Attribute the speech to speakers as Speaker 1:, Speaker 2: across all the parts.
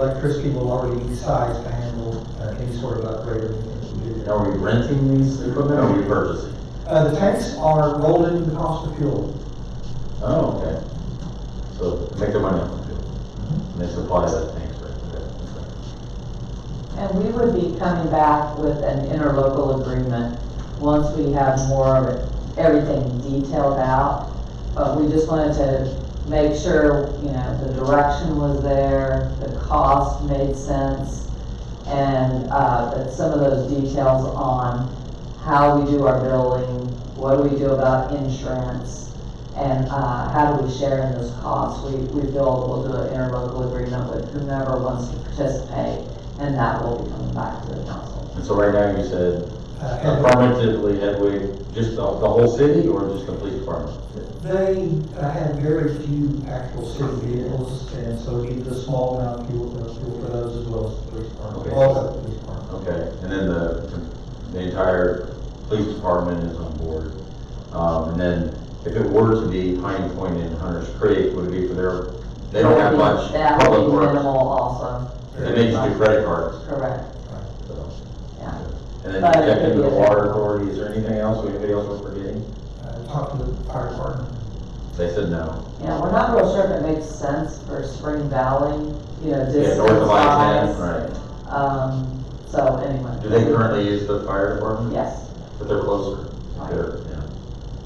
Speaker 1: Electricity will already be sized to handle uh, any sort of upgrade or anything we do.
Speaker 2: Are we renting these equipment or are we purchasing?
Speaker 1: Uh, the tanks are rolled into the cost of fuel.
Speaker 2: Oh, okay. So make the money off of it. And they supply that tank, right? Okay.
Speaker 3: And we would be coming back with an interlocal agreement once we have more of it- everything detailed out. But we just wanted to make sure, you know, the direction was there, the cost made sense, and, uh, that some of those details on how we do our billing, what do we do about insurance, and, uh, how do we share in those costs? We, we feel we'll do an interlocal agreement with whomever wants to participate and that will be coming back to the council.
Speaker 2: And so right now you said
Speaker 1: Uh, and
Speaker 2: affirmatively Headway, just the, the whole city or just the police department?
Speaker 1: They uh, have very few actual city vehicles, and so we use a small amount of fuel, uh, fuel for those as well as the police department,
Speaker 2: Okay.
Speaker 1: all of the police department.
Speaker 2: Okay, and then the, the entire police department is on board. Um, and then if it were to be Pine Point and Hunter's Creek, would it be for their, they don't have much
Speaker 3: That
Speaker 2: public
Speaker 3: will be
Speaker 2: works.
Speaker 3: minimal also,
Speaker 2: They may just do credit cards,
Speaker 3: correct,
Speaker 2: so.
Speaker 3: yeah.
Speaker 2: And then
Speaker 3: But it
Speaker 2: check
Speaker 3: could
Speaker 2: into
Speaker 3: be
Speaker 2: the
Speaker 3: a-
Speaker 2: water authority, is there anything else, anybody else we're forgetting?
Speaker 1: Uh, Talk to the fire department.
Speaker 2: They said no.
Speaker 3: Yeah, we're not real sure if it makes sense for Spring Valley, you know,
Speaker 2: Yeah,
Speaker 3: distance
Speaker 2: north of
Speaker 3: wise.
Speaker 2: I-10, right.
Speaker 3: Um, so anyway.
Speaker 2: Do they currently use the fire department?
Speaker 3: Yes,
Speaker 2: But they're closer.
Speaker 3: Right.
Speaker 2: They're-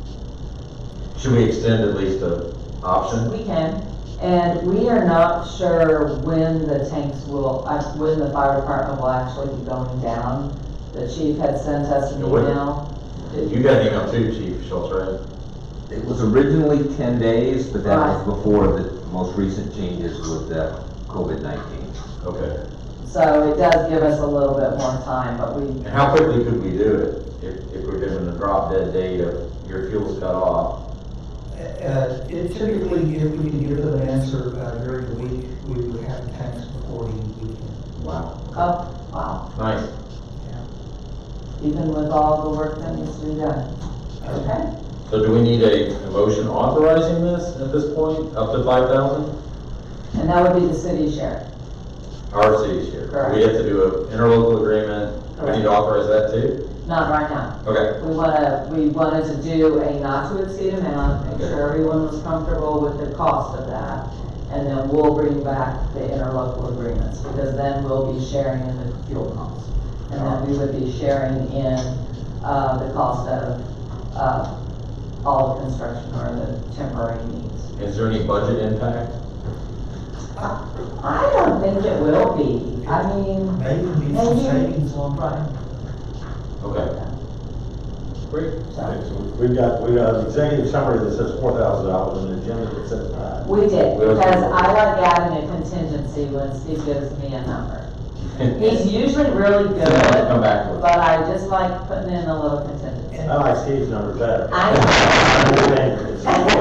Speaker 2: yeah. Should we extend at least the option?
Speaker 3: we can, and we are not sure when the tanks will, uh, when the fire department will actually be going down. The chief had sent us an
Speaker 2: It wouldn't-
Speaker 3: email.
Speaker 2: You got an email too, Chief Schultz, right?
Speaker 4: It was originally ten days, but that
Speaker 3: Right.
Speaker 4: was before the most recent changes with the COVID nineteen.
Speaker 2: Okay.
Speaker 3: So it does give us a little bit more time, but we
Speaker 2: And how quickly could we do it if, if we're given a drop dead date of your fuel's cut off?
Speaker 1: Uh, It typically, if we can give them an answer uh, during the week, we would have the tanks before the weekend.
Speaker 2: Wow.
Speaker 3: Oh, wow,
Speaker 2: Nice.
Speaker 3: even with all the work that needs to be done. Okay,
Speaker 2: So do we need a a motion authorizing this at this point, up to five thousand?
Speaker 3: and that would be the city share,
Speaker 2: Our city's here. We have to do an interlocal agreement. We need to authorize that too?
Speaker 3: not right now.
Speaker 2: Okay.
Speaker 3: We wanna, we wanted to do a not to exceed amount, make sure everyone was comfortable with the cost of that. And then we'll bring back the interlocal agreements, because then we'll be sharing in the fuel costs. And then we would be sharing in, uh, the cost of, uh, all the construction or the temporary needs.
Speaker 2: Is there any budget impact?
Speaker 3: I don't think it will be. I mean,
Speaker 1: Maybe be some
Speaker 3: Maybe.
Speaker 1: savings on Friday.
Speaker 2: Okay. Great.
Speaker 3: so,
Speaker 5: We've got, we got an executive summary that says four thousand dollars and an agenda that says five.
Speaker 3: we did,
Speaker 2: We'll-
Speaker 3: because I like adding a contingency when Steve gives me a number. He's usually really good,
Speaker 2: Come back with it.
Speaker 3: but I just like putting in a little contingency.
Speaker 5: I like Steve's number better.
Speaker 3: I.
Speaker 5: I'm just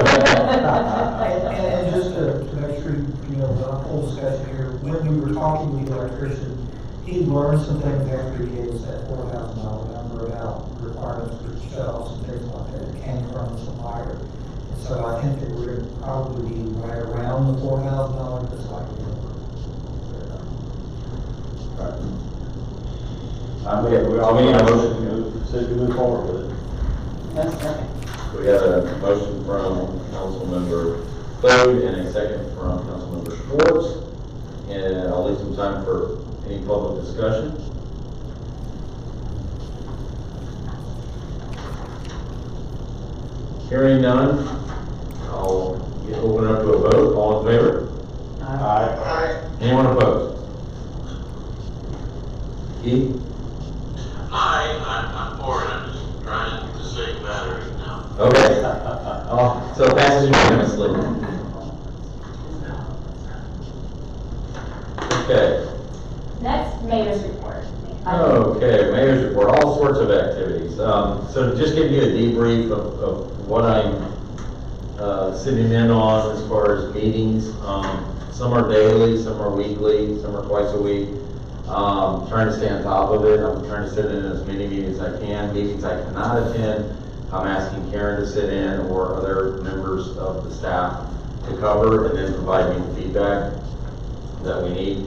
Speaker 5: saying, it's-
Speaker 1: And, and just to, to make sure, you know, the whole discussion here, when we were talking with the electrician, he learned some things after he gave us that four thousand dollar number about requirements for shelves and things like that, that came from the supplier. So I think that we're gonna probably be right around the four thousand dollar, just like.
Speaker 5: I'm, yeah, we all, we need a motion to move, so you move forward with it.
Speaker 2: We have a motion from Councilmember Bode and a second from Councilmember Schwartz. And I'll leave some time for any public discussion. Hearing none, I'll get- open up to a vote. All in favor?
Speaker 5: Aye.
Speaker 2: Anyone opposed? E?
Speaker 6: Hi, I'm, I'm Warren, I'm just trying to save batteries now.
Speaker 2: Okay. Oh, So it passes unanimously. Okay,
Speaker 7: Next, mayor's report.
Speaker 2: Oh. okay, mayor's report, all sorts of activities. Um, so to just give you a debrief of, of what I'm, uh, sitting in on as far as meetings. Um, some are daily, some are weekly, some are twice a week. Um, trying to stay on top of it, I'm trying to sit in as many meetings as I can, meetings I cannot attend. I'm asking Karen to sit in or other members of the staff to cover and then provide me the feedback that we need.